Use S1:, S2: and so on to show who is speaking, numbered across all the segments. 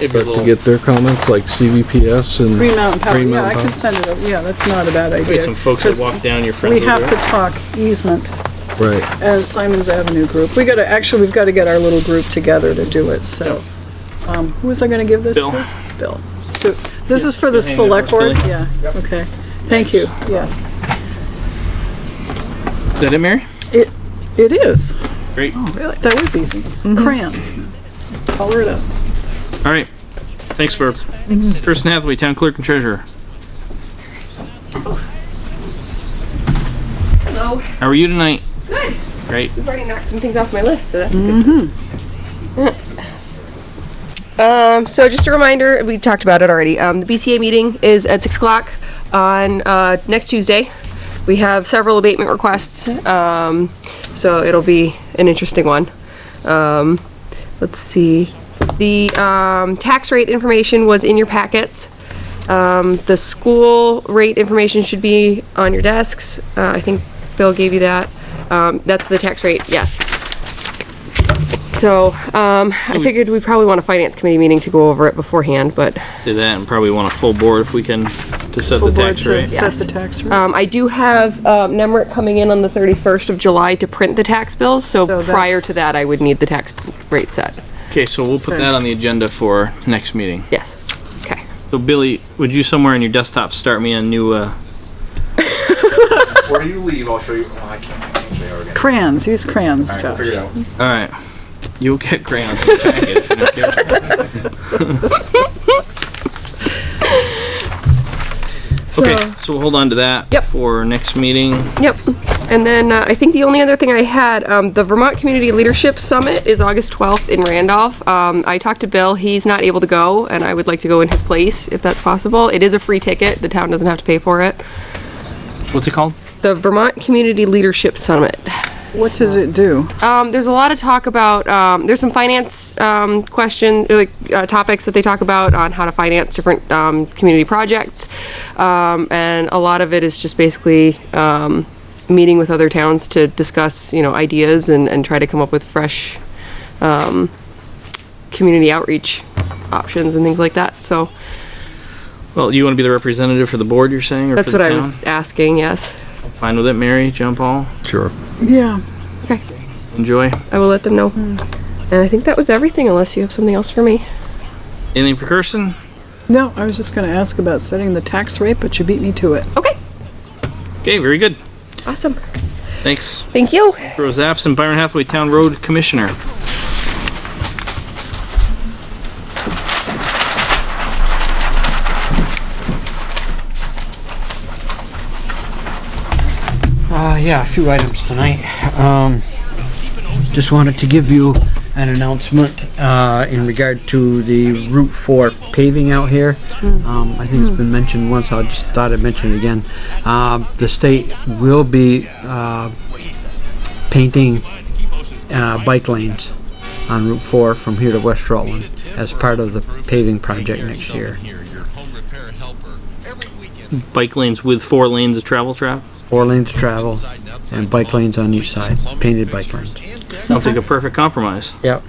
S1: It'd be a
S2: But to
S1: little,
S2: get their comments, like CVPS and.
S3: Green Mountain Power,
S2: Green
S3: yeah, I
S2: Mountain
S3: can
S2: Power.
S3: send it, over. yeah, that's not a bad idea.
S1: we had some folks that
S3: 'cause
S1: walked down, your friends
S3: We
S1: over there.
S3: have to talk easement
S2: Right,
S3: as Simon's Avenue group. We gotta, actually, we've gotta get our little group together to do it, so. Um, who was I gonna give this
S1: Bill.
S3: to? Bill. To- This is for the
S1: You hanging
S3: select
S1: there for
S3: board?
S1: us,
S3: Yeah, okay. Thank you, yes.
S1: Is that it, Mary?
S3: It, it is.
S1: Great. All
S3: Really? That was easy. Crayons. Color it up.
S1: right. Thanks, Burp. Kirsten Hathaway, Town Clerk and Treasurer.
S4: Hello.
S1: How are you tonight?
S4: Good.
S1: Great.
S4: You've already knocked some things off my list, so that's good. Um, so just a reminder, we talked about it already. Um, the BCA meeting is at six o'clock on uh, next Tuesday. We have several abatement requests, um, so it'll be an interesting one. Um, let's see. The um, tax rate information was in your packets. Um, the school rate information should be on your desks. Uh, I think Bill gave you that. Um, that's the tax rate, yes. So, um, I figured we probably want a finance committee meeting to go over it beforehand, but,
S1: Do that and probably want a full board if we can to set the
S3: Full board
S1: tax
S3: to
S1: rate.
S3: Set
S4: Yes.
S3: the tax rate.
S4: um, I do have, um, NEMRIC coming in on the thirty-first of July to print the tax bills,
S3: So
S4: so prior
S3: that's-
S4: to that, I would need the tax rate set.
S1: Okay, so we'll put that on the agenda for next meeting.
S4: Yes, okay.
S1: So Billy, would you somewhere on your desktop start me a new, uh,
S5: Before you leave, I'll show you. Oh, I can't. I can't show you already.
S3: Crayons, use crayons,
S5: All right, we'll
S3: Josh.
S5: figure it out.
S1: all right. You'll get crayons. in the packet if you don't care. Okay, so we'll hold on to that.
S4: Yep.
S1: For next meeting.
S4: Yep. And then uh, I think the only other thing I had, um, the Vermont Community Leadership Summit is August 12th in Randolph. Um, I talked to Bill. He's not able to go, and I would like to go in his place if that's possible. It is a free ticket, the town doesn't have to pay for it.
S1: What's it called?
S4: The Vermont Community Leadership Summit.
S3: What does it do?
S4: Um, there's a lot of talk about, um, there's some finance um, question, like uh, topics that they talk about on how to finance different um, community projects. Um, and a lot of it is just basically um, meeting with other towns to discuss, you know, ideas and, and try to come up with fresh um, community outreach options and things like that. So
S1: Well, you want to be the representative for the board, you're saying, or for
S4: that's
S1: the
S4: what I
S1: town?
S4: was asking, yes.
S1: Fine with it, Mary, John Paul,
S2: sure.
S3: Yeah.
S4: Okay,
S1: enjoy.
S4: I will let them know. And I think that was everything, unless you have something else for me.
S1: Anything for Kirsten?
S3: No, I was just gonna ask about setting the tax rate, but you beat me to it.
S4: Okay,
S1: Okay, very good.
S4: awesome.
S1: Thanks.
S4: Thank you.
S1: Rose absent, Byron Hathaway, Town Road Commissioner.
S6: Uh, yeah, a few items tonight. Um, just wanted to give you an announcement, uh, in regard to the Route Four paving out here. Um, I think it's been mentioned once, I just thought I'd mention it again. Um the state will be, uh, painting, uh, bike lanes on Route Four from here to West Rutland as part of the paving project next year.
S1: Bike lanes with four lanes of travel trap.
S6: Four lanes of travel and bike lanes on each side, painted bike lanes.
S1: Sounds like a perfect compromise.
S6: Yep.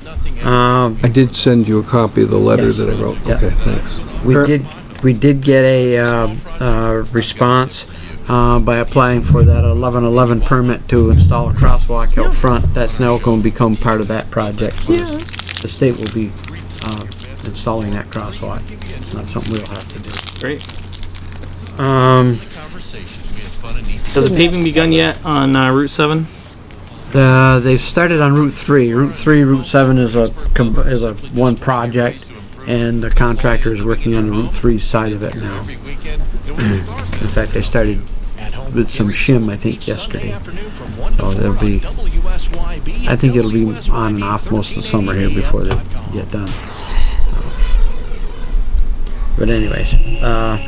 S6: Um,
S2: I did send you a copy of the letter
S6: Yes.
S2: that I wrote.
S6: Yeah.
S2: Okay, thanks.
S6: We
S2: Er-
S6: did, we did get a, uh, uh, response, uh, by applying for that eleven eleven permit to install a crosswalk out front. That's now gonna become part of that project. The state will be, uh, installing that crosswalk. It's not something we'll have to do.
S1: Great.
S6: Um,
S1: Has the paving begun yet on uh, Route 7?
S6: uh, they've started on Route three. Route three, Route seven is a, com- is a one project, and the contractor is working on the Route three side of it now. In fact, they started with some shim, I think, yesterday. So it'll Oh, be, I think it'll be on and off most of the summer here before they get done. But anyways, uh,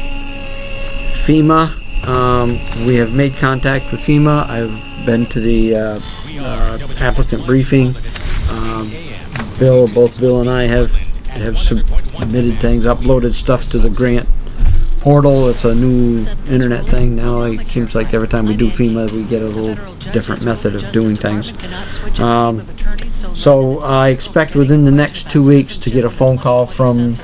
S6: FEMA, um, we have made contact with FEMA. I've been to the, uh, uh, applicant briefing. Um, Bill, both Bill and I have, have submitted things, uploaded stuff to the grant portal. It's a new internet thing now. It seems like every time we do FEMA, we get a little different method of doing things. Um, So I expect within the next two weeks to get a phone call from